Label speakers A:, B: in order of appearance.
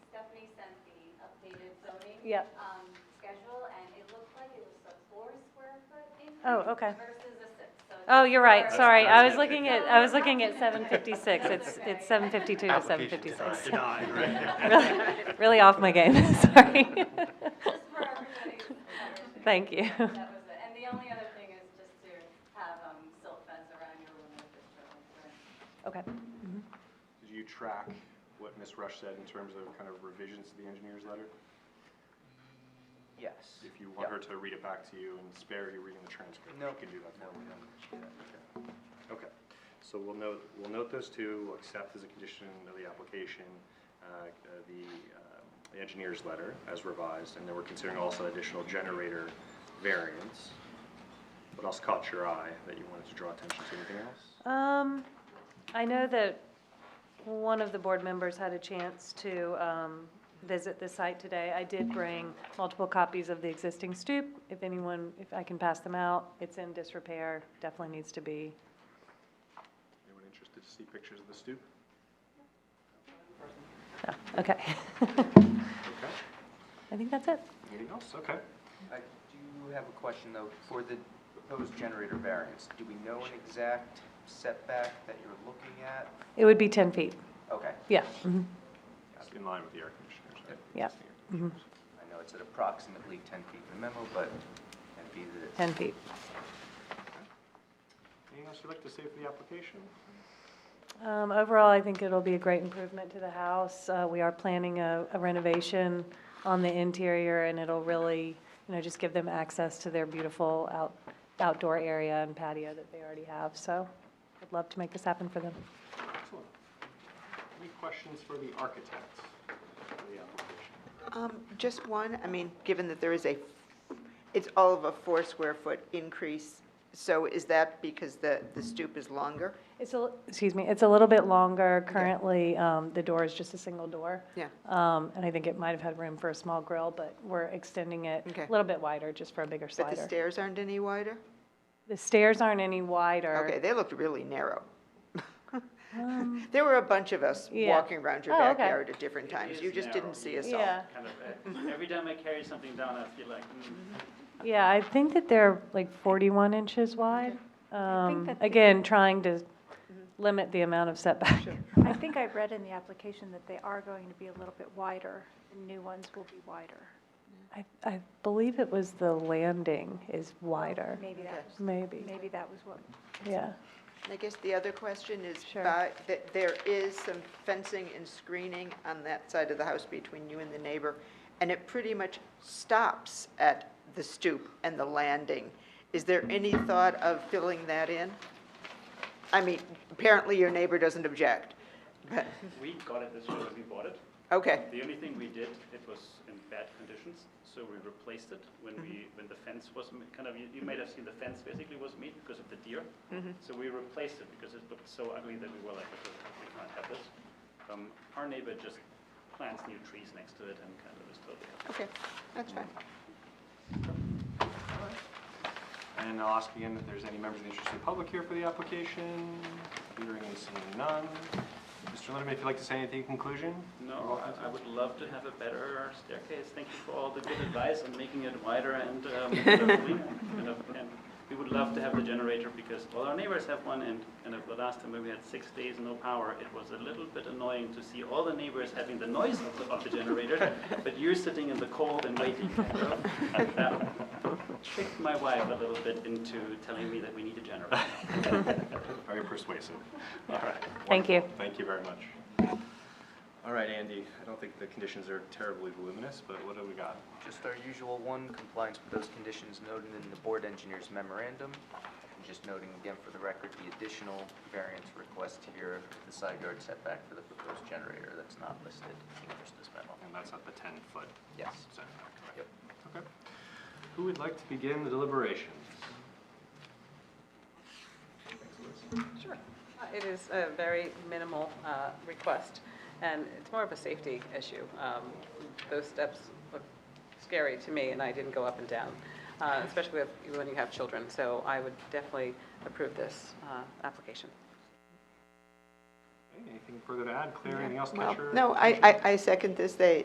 A: yeah,
B: um, schedule, and it looked like it was a four square foot increase.
A: Oh, okay.
B: Versus a six, so. it's
A: oh, you're right,
C: That's-
B: four-
A: sorry, I was
C: that's-
A: looking at, I was looking at seven fifty-six, it's, it's seven fifty-two to seven
C: Application
A: fifty-six.
C: denied, denied, right?
A: Really really off my game, sorry.
B: Just for everybody's consideration.
A: Thank you.
B: That was it, and the only other thing is just to have, um, silt fence around your room with the showing, so.
A: Okay.
D: Did you track what Ms. Rush said in terms of kind of revisions to the engineer's letter?
E: Yes.
D: If you want her to read it back to you and spare you reading the transcript,
E: No.
D: she can do that for you.
E: Yeah.
D: Okay, so we'll note, we'll note those two, we'll accept as a condition of the application, uh, uh, the um, the engineer's letter as revised, and then we're considering also additional generator variance. What else caught your eye that you wanted to draw attention to, anything else?
A: Um, I know that one of the board members had a chance to, um, visit the site today. I did bring multiple copies of the existing stoop, if anyone, if I can pass them out. It's in disrepair, definitely needs to be,
D: Anyone interested to see pictures of the stoop?
A: no, okay.
D: Okay,
A: I think that's it.
D: anything else? Okay.
E: I do have a question, though, for the proposed generator variance. Do we know an exact setback that you're looking at?
A: It would be ten feet,
E: Okay,
A: yeah,
F: mm-hmm.
A: mhm,
D: That's in line with the air conditioners. right?
A: Yeah. Mhm.
E: I know it's at approximately 10 feet in the memo, but 10 feet is...
A: ten feet.
D: Anything else you'd like to say for the application?
A: Um, overall, I think it'll be a great improvement to the house. Uh, we are planning a a renovation on the interior, and it'll really, you know, just give them access to their beautiful out, outdoor area and patio that they already have, so I'd love to make this happen for them.
D: Excellent. Any questions for the architect for the application?
F: Um, just one, I mean, given that there is a, it's all of a four square foot increase, so is that because the, the stoop is longer?
A: It's a, excuse me, it's a little bit longer. Currently, um, the door is just a single door.
F: Yeah.
A: Um, and I think it might have had room for a small grill, but we're extending it
F: Okay.
A: a little bit wider, just for a bigger
F: But the
A: slider.
F: stairs aren't any wider?
A: The stairs aren't any wider.
F: Okay, they looked really narrow. There were a bunch of us
A: Um. Yeah.
F: walking around your
A: Oh, okay.
F: backyard at different
G: It
F: times,
G: is
F: you just
G: narrow.
F: didn't see us all.
A: Yeah.
G: kind of, eh, every time I carry something down, I feel like, mm,
A: Yeah, I think that they're like 41 inches wide. Um, Again, trying to limit the amount of setback.
H: I think I read in the application that they are going to be a little bit wider, the new ones will be wider.
A: I, I believe it was the landing is wider,
H: Maybe that was,
A: maybe,
H: maybe that was what
A: yeah.
F: I guess the other question is,
A: Sure.
F: by- that there is some fencing and screening on that side of the house between you and the neighbor, and it pretty much stops at the stoop and the landing. Is there any thought of filling that in? I mean, apparently your neighbor doesn't object, but,
G: we got it this way when we bought it.
F: okay,
G: The only thing we did, it was in bad conditions, so we replaced it when we, when the fence was ma- kind of, you, you might have seen the fence basically was made because of the deer. So we replaced it because it looked so ugly that we were like, "Okay, we can't have this. Um, our neighbor just plants new trees next to it and kind of is totally happy.
F: okay, that's fine.
D: And I'll ask again if there's any members of the interested public here for the application. Hearing and seeing none. Mr. Linderman, if you'd like to say anything in conclusion? you're
G: No,
D: welcome
G: I- I
D: to.
G: would love to have a better staircase. Thank you for all the good advice on making it wider and, um, kind of cleaner, kind of- and we would love to have the generator because all our neighbors have one and kind of the last time when we had six days no power, it was a little bit annoying to see all the neighbors having the noise of the, of the generator, but you're sitting in the cold and waiting. That Tricked my wife a little bit into telling me that we need a generator.
D: Very persuasive. All right.
A: Thank you.
D: wonderful. Thank you very much. All right, Andy, I don't think the conditions are terribly voluminous, but what have we got?
E: Just our usual one, compliance with those conditions noted in the board engineer's memorandum. And just noting again for the record, the additional variance request here, the side yard setback for the proposed generator that's not listed in just this memo.
D: And that's at the 10-foot
E: Yes.
D: setback, correct?
E: Yep.
D: Okay. Who would like to begin the deliberations?
I: Sure. Uh, It is a very minimal uh, request, and it's more of a safety issue. Um, Those steps look scary to me, and I didn't go up and down, uh, especially with- when you have children. So I would definitely approve this uh, application.
D: Anything further to add? Claire, anything else?
F: Well,
D: catch your-
F: No, I, I, I second this, they,